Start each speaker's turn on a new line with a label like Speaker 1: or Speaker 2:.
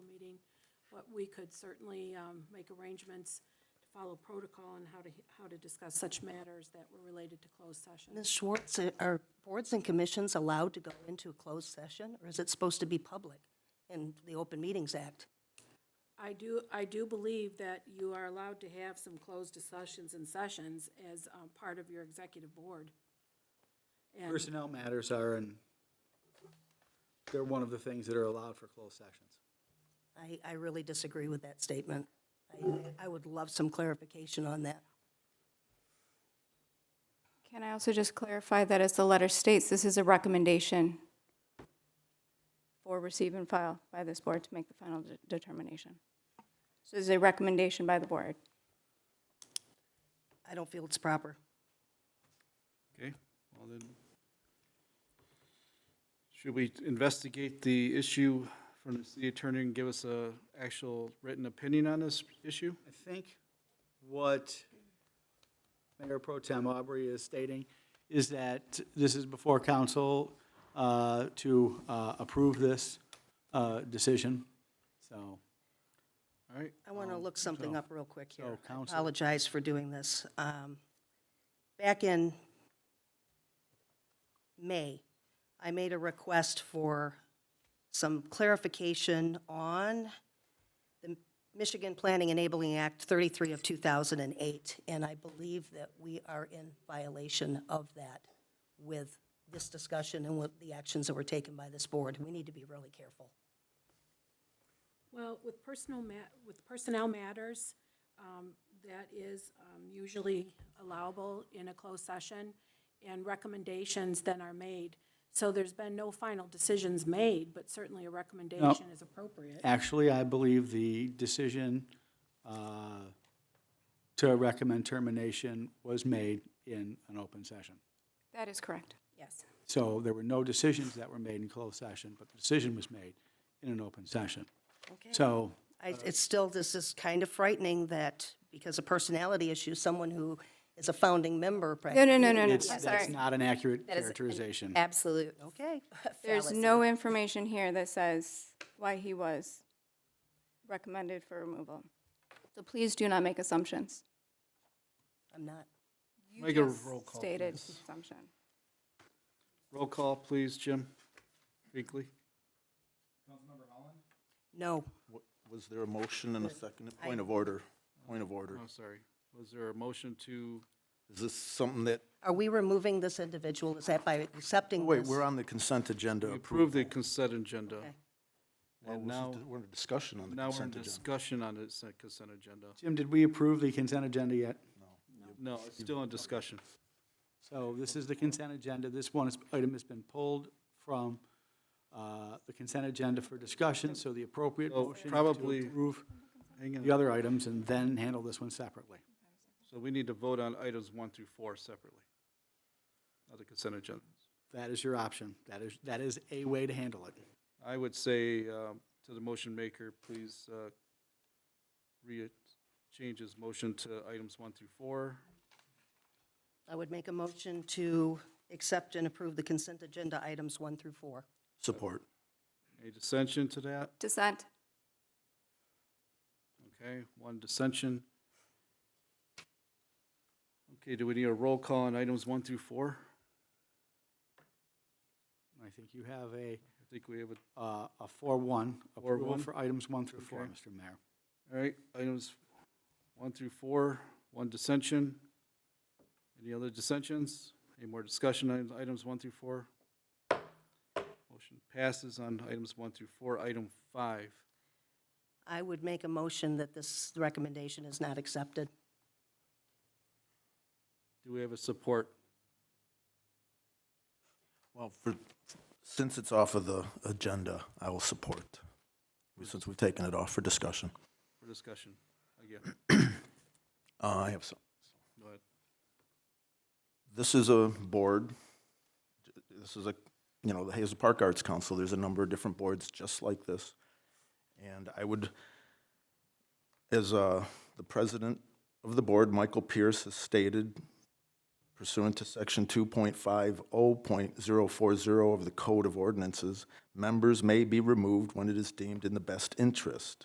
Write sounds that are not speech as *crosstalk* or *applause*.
Speaker 1: But we could certainly um, make arrangements to follow protocol on how to, how to discuss such matters that were related to closed session.
Speaker 2: Ms. Schwartz, uh, are boards and commissions allowed to go into a closed session, or is it supposed to be public in the Open Meetings Act?
Speaker 1: I do, I do believe that you are allowed to have some closed discussions and sessions as um, part of your executive board. And
Speaker 3: Personnel matters are, and they're one of the things that are allowed for closed sessions.
Speaker 2: I, I really disagree with that statement. I- I would love some clarification on that.
Speaker 4: Can I also just clarify that as the letter states, this is a recommendation for receive and file by this board to make the final de- determination? So this is a recommendation by the board.
Speaker 2: I don't feel it's proper.
Speaker 5: Okay, well then, should we investigate the issue from the city attorney and give us a actual written opinion on this issue?
Speaker 3: I think what Mayor Pro Tem Aubrey is stating is that this is before council uh, to uh, approve this uh, decision, so.
Speaker 5: All right,
Speaker 2: I want to look something up real quick here.
Speaker 5: so
Speaker 2: I
Speaker 5: counsel-
Speaker 2: apologize for doing this. Um, Back in May, I made a request for some clarification on the Michigan Planning Enabling Act 33 of 2008, and I believe that we are in violation of that with this discussion and with the actions that were taken by this board. We need to be really careful.
Speaker 1: Well, with personal ma, with personnel matters, um, that is, um, usually allowable in a closed session, and recommendations then are made. So there's been no final decisions made, but certainly a recommendation is appropriate.
Speaker 3: Actually, I believe the decision uh, to recommend termination was made in an open session.
Speaker 4: That is correct.
Speaker 1: Yes.
Speaker 3: So there were no decisions that were made in closed session, but the decision was made in an open session. So
Speaker 2: I, it's still, this is kind of frightening that because of personality issues, someone who is a founding member.
Speaker 4: No, no, no, no, no, I'm
Speaker 3: it's, that's
Speaker 4: sorry.
Speaker 3: not an accurate characterization.
Speaker 6: Absolute.
Speaker 2: Okay. *laughs*
Speaker 4: There's no information here that says why he was recommended for removal. So please do not make assumptions.
Speaker 2: I'm not.
Speaker 4: You
Speaker 5: Make a
Speaker 4: just
Speaker 5: roll call,
Speaker 4: Stated
Speaker 5: please.
Speaker 4: assumption.
Speaker 5: roll call, please, Jim Binkley.
Speaker 2: No,
Speaker 7: Wa- Was there a motion and a second? Point of order, point of order.
Speaker 5: Oh, sorry, was there a motion to,
Speaker 7: Is this something that,
Speaker 2: are we removing this individual? Is that by accepting
Speaker 7: wait,
Speaker 2: this?
Speaker 7: we're on the consent agenda.
Speaker 5: we
Speaker 7: approval.
Speaker 5: approved the consent agenda?
Speaker 2: Okay.
Speaker 7: Well,
Speaker 5: and
Speaker 7: this is
Speaker 5: now-
Speaker 7: di- We're in discussion on the
Speaker 5: Now we're in
Speaker 7: consent agenda.
Speaker 5: discussion on the s- consent agenda.
Speaker 3: Jim, did we approve the consent agenda yet?
Speaker 5: No, it's still in discussion.
Speaker 3: So this is the consent agenda. This one is- item has been pulled from uh, the consent agenda for discussion, so the appropriate
Speaker 5: So
Speaker 3: motion is
Speaker 5: probably-
Speaker 3: to approve
Speaker 5: Hang
Speaker 3: the
Speaker 5: on,
Speaker 3: other items and then handle this one separately.
Speaker 5: so we need to vote on items one through four separately, on the consent agenda.
Speaker 3: That is your option. That is, that is a way to handle it.
Speaker 5: I would say um, to the motion maker, please uh, re, change his motion to items one through four.
Speaker 2: I would make a motion to accept and approve the consent agenda items one through four.
Speaker 7: Support.
Speaker 5: Any dissension to that?
Speaker 4: Dissent?
Speaker 5: Okay, one dissension. Okay, do we need a roll call on items one through four?
Speaker 3: I think you have a,
Speaker 5: I think we have a,
Speaker 3: uh, a four-one approval
Speaker 5: 4-1?
Speaker 3: for items one through four,
Speaker 5: Okay.
Speaker 3: Mr. Mayor.
Speaker 5: all right, items one through four, one dissension. Any other dissensions? Any more discussion on items one through four? Motion passes on items one through four. Item five.
Speaker 2: I would make a motion that this recommendation is not accepted.
Speaker 5: Do we have a support?
Speaker 7: Well, for, since it's off of the agenda, I will support, since we've taken it off for discussion.
Speaker 5: for discussion again.
Speaker 7: Uh, I have some.
Speaker 5: Go ahead.
Speaker 7: This is a board, this is a, you know, the Hazel Park Arts Council, there's a number of different boards just like this. And I would, as uh, the president of the board, Michael Pierce, has stated pursuant to section 2.50.040 of the Code of Ordinances, members may be removed when it is deemed in the best interest